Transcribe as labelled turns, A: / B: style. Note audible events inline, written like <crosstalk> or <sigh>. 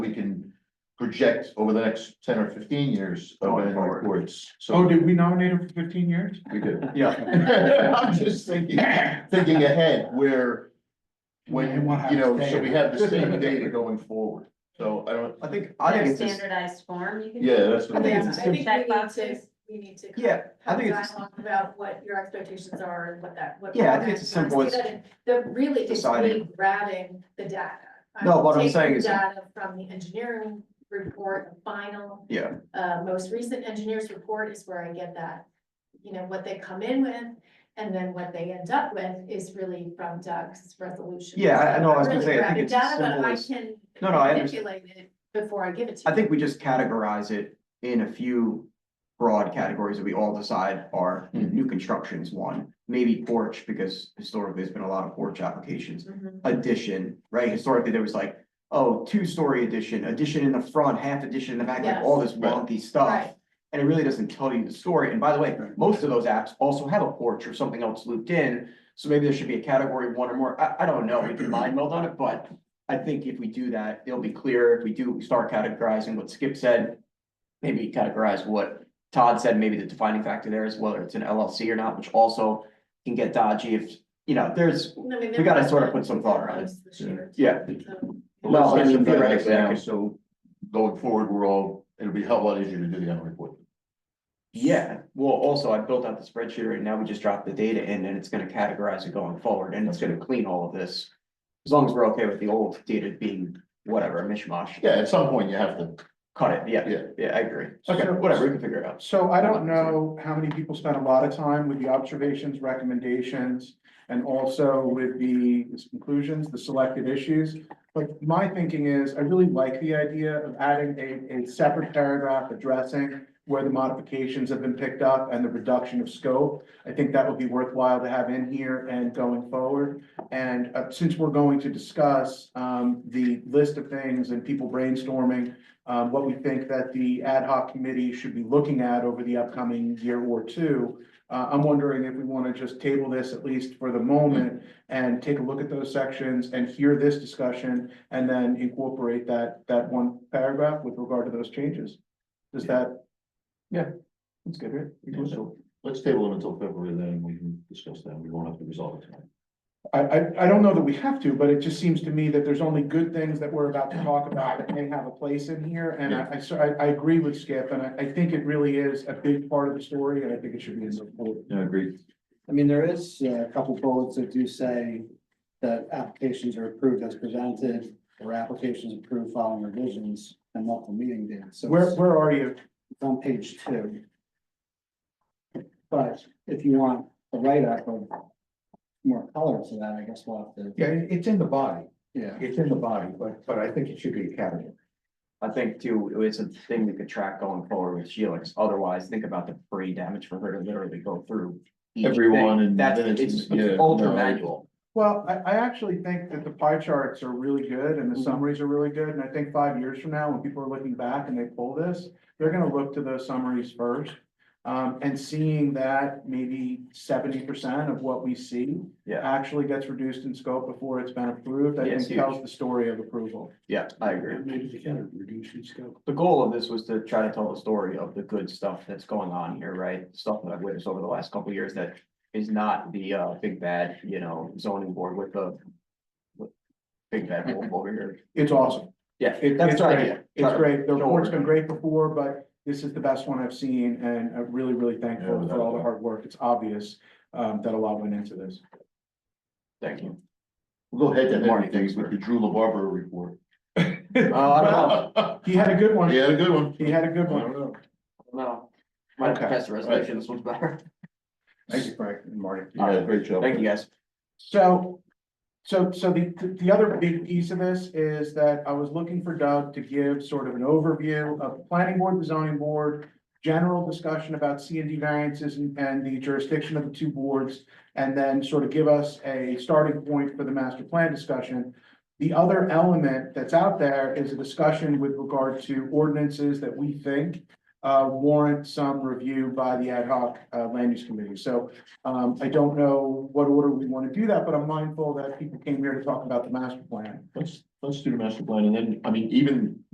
A: project over the next ten or fifteen years of
B: Going
A: annual
B: forward.
A: reports,
C: Oh,
A: so
C: did we nominate him for fifteen years?
A: <laughs> we
C: <laughs>
A: do. <laughs>
B: Yeah,
A: I'm just thinking, thinking ahead where, when,
C: And we'll have
A: you know,
C: to stay
A: so we
C: in.
A: have the same data going forward. So I don't,
B: I think, I think
D: Their
B: it's, just-
D: standardized form, you can.
A: yeah, that's what
B: I think
A: I
B: it's
E: I think we need to,
D: Checkboxes.
E: we need to.
B: Yeah, I
E: Have a
B: think it's-
E: dialogue about what your expectations are and what that, what.
B: Yeah, I think it's as
E: what-
B: simple as
E: That really is me
B: deciding.
E: grabbing the data.
B: No, what I'm
E: taking
B: saying is-
E: Data from the engineering report, the final.
B: Yeah.
E: Uh, most recent engineer's report is where I get that, you know, what they come in with, and then what they end up with is really from Doug's resolution.
B: Yeah, I- I know, I was
E: So I'm
B: gonna
E: really
B: say, I think
E: grabbing
B: it's as
E: data, but
B: simple
E: I
B: as-
E: can
B: No, no, I under-
E: Manipulate it before I give it to you.
B: I think we just categorize it in a few broad categories that we all decide are
A: Mhm.
B: new constructions, one. Maybe porch, because historically, there's been a lot of porch applications.
E: Mhm.
B: Addition, right? Historically, there was like, oh, two-story addition, addition in the front, half addition in the back, like all this
A: Yes.
B: wonky stuff.
E: Right.
B: And it really doesn't tell you the story. And by the way, most of those apps also have a porch or something else looped in. So maybe there should be a category one or more. I, I don't know. We can mind meld on it, but I think if we do that, it'll be clear. If we do start categorizing what Skip said, maybe categorize what Todd said, maybe the defining factor there is whether it's an LLC or not, which also can get dodgy if, you know, there's,
E: I mean,
B: we gotta
E: there
B: sort of put
E: was
B: some thought around it.
E: this year,
B: yeah, No, I
E: so-
B: mean,
A: Legislation does that
B: theoretically, I
A: now,
B: could-
A: So going forward, we're all, it'll be a hell of a lot easier to do the annual report.
B: yeah. Well, also I built out the spreadsheet right now. We just dropped the data in and it's gonna categorize it going forward and it's gonna clean all of this. As long as we're okay with the old data being whatever, mishmash,
A: Yeah, at some point you have to,
B: cut it, yeah,
A: yeah.
B: yeah, I agree.
C: Okay.
B: Whatever, we can figure it out.
C: <clears throat> So I don't know how many people spent a lot of time with the observations, recommendations, and also with the conclusions, the selected issues. But my thinking is, I really like the idea of adding a, a separate paragraph addressing where the modifications have been picked up and the reduction of scope. I think that would be worthwhile to have in here and going forward. And uh, since we're going to discuss, um, the list of things and people brainstorming, uh, what we think that the ad hoc committee should be looking at over the upcoming year or two. Uh, I'm wondering if we want to just table this at least for the moment and take a look at those sections and hear this discussion and then incorporate that, that one paragraph with regard to those changes. Does that?
B: That's good, right? We can do it.
A: So let's table them until February, then we can discuss that. We won't have to resolve it tonight.
C: I, I, I don't know that we have to, but it just seems to me that there's only good things that we're about to talk about that may have a place in here. And I, I, so I, I agree with Skip and I, I think it really is a big part of the story and I think it should be in the report.
A: Yeah, agreed.
F: I mean, there is uh, a couple bullets that do say that applications are approved as presented or applications approved following revisions and multiple meeting dates. So
C: Where,
F: it's
C: where are you?
F: on page two. But if you want a write-up of more color to that, I guess we'll have to,
G: Yeah, it- it's in the body,
F: yeah.
G: it's in the body, but, but I think it should be a category.
B: I think too, it's a thing we could track going forward with Sheelix, otherwise think about the brain damage for her to literally go through. each thing.
A: Everyone and
B: That's,
A: then it's-
B: it's
A: yeah,
B: it's ultra
A: no.
B: manual.
C: Well, I, I actually think that the pie charts are really good and the
G: Mm-hmm.
C: summaries are really good, and I think five years from now, when people are looking back and they pull this, they're gonna look to those summaries first. Um, and seeing that maybe seventy percent of what we see
B: Yeah.
C: actually gets reduced in scope before it's been approved, I
B: Yeah, it's
C: think tells the story of approval.
B: Yeah, I agree.
G: Maybe they can reduce in scope.
B: The goal of this was to try to tell the story of the good stuff that's going on here, right? Stuff that I've witnessed over the last couple of years that is not the uh big bad, you know, zoning board with the. with Big bad wolf over here.
C: It's awesome.
B: Yeah,
C: It-
B: that's
C: it's
B: our
C: great.
B: idea.
C: It's great. The
B: Sure.
C: report's been great before, but this is the best one I've seen, and I'm really, really thankful for all the hard work. It's obvious, um, that a lot went into this.
B: Thank you.
A: We'll go head to head
B: Marty,
A: with things with the Drew LaBarbera report.
B: <laughs> Oh, I don't know.
C: He had a good one.
A: <laughs> He had a good one.
C: He had a good
A: I
C: one.
A: don't know.
B: No. Might have to
C: Okay.
B: pass the resolution, this one's better.
C: Thank you, Frank and Marty.
A: You did a great job.
B: Thank you, guys.
C: So, so, so the, the other big piece of this is that I was looking for Doug to give sort of an overview of the planning board, the zoning board, general discussion about C and D variances and, and the jurisdiction of the two boards, and then sort of give us a starting point for the master plan discussion. The other element that's out there is a discussion with regard to ordinances that we think uh, warrant some review by the ad hoc uh, land use committee. So um, I don't know what order we want to do that, but I'm mindful that people came here to talk about the master plan.
A: Let's, let's do the master plan and then, I mean, even